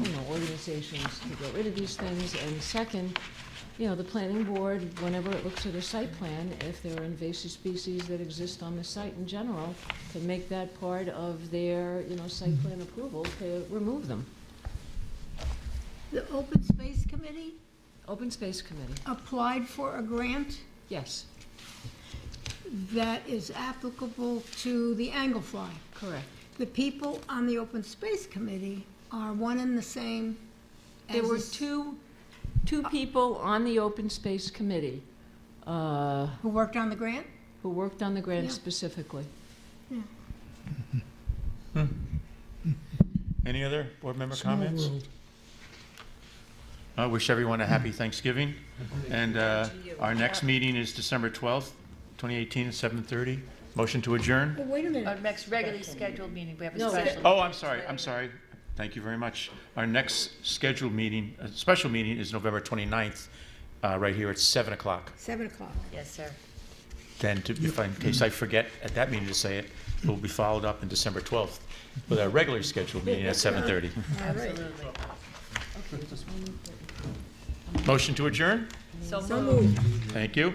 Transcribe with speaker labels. Speaker 1: you know, organizations to get rid of these things. And second, you know, the planning board, whenever it looks at a site plan, if there are invasive species that exist on the site in general, can make that part of their, you know, site plan approval to remove them.
Speaker 2: The Open Space Committee
Speaker 1: Open Space Committee,
Speaker 2: applied for a grant
Speaker 1: yes,
Speaker 2: that is applicable to the Anglefly.
Speaker 1: correct.
Speaker 2: The people on the Open Space Committee are one and the same as...
Speaker 1: There were
Speaker 2: the s-
Speaker 1: two, two people on the Open Space Committee uh,
Speaker 2: Who worked on the grant?
Speaker 1: who worked on the grant
Speaker 2: Yeah.
Speaker 1: specifically.
Speaker 3: Any other board member comments? I wish everyone a happy Thanksgiving. And uh, our next meeting is December 12th, 2018, at 7:30. Motion to adjourn?
Speaker 2: Well, wait a
Speaker 4: Our
Speaker 2: minute.
Speaker 4: next regularly scheduled meeting, we have
Speaker 1: No,
Speaker 4: a special.
Speaker 3: Oh, I'm sorry, I'm sorry. Thank you very much. Our next scheduled meeting, uh, special meeting is November 29th, uh, right here at 7 o'clock.
Speaker 2: 7 o'clock.
Speaker 4: Yes, sir.
Speaker 3: Then, to- if I- in case I forget at that meeting to say it, it will be followed up in December 12th with our regularly scheduled meeting at 7:30.
Speaker 4: Absolutely.
Speaker 3: Motion to adjourn?
Speaker 4: So moved.
Speaker 3: Thank you.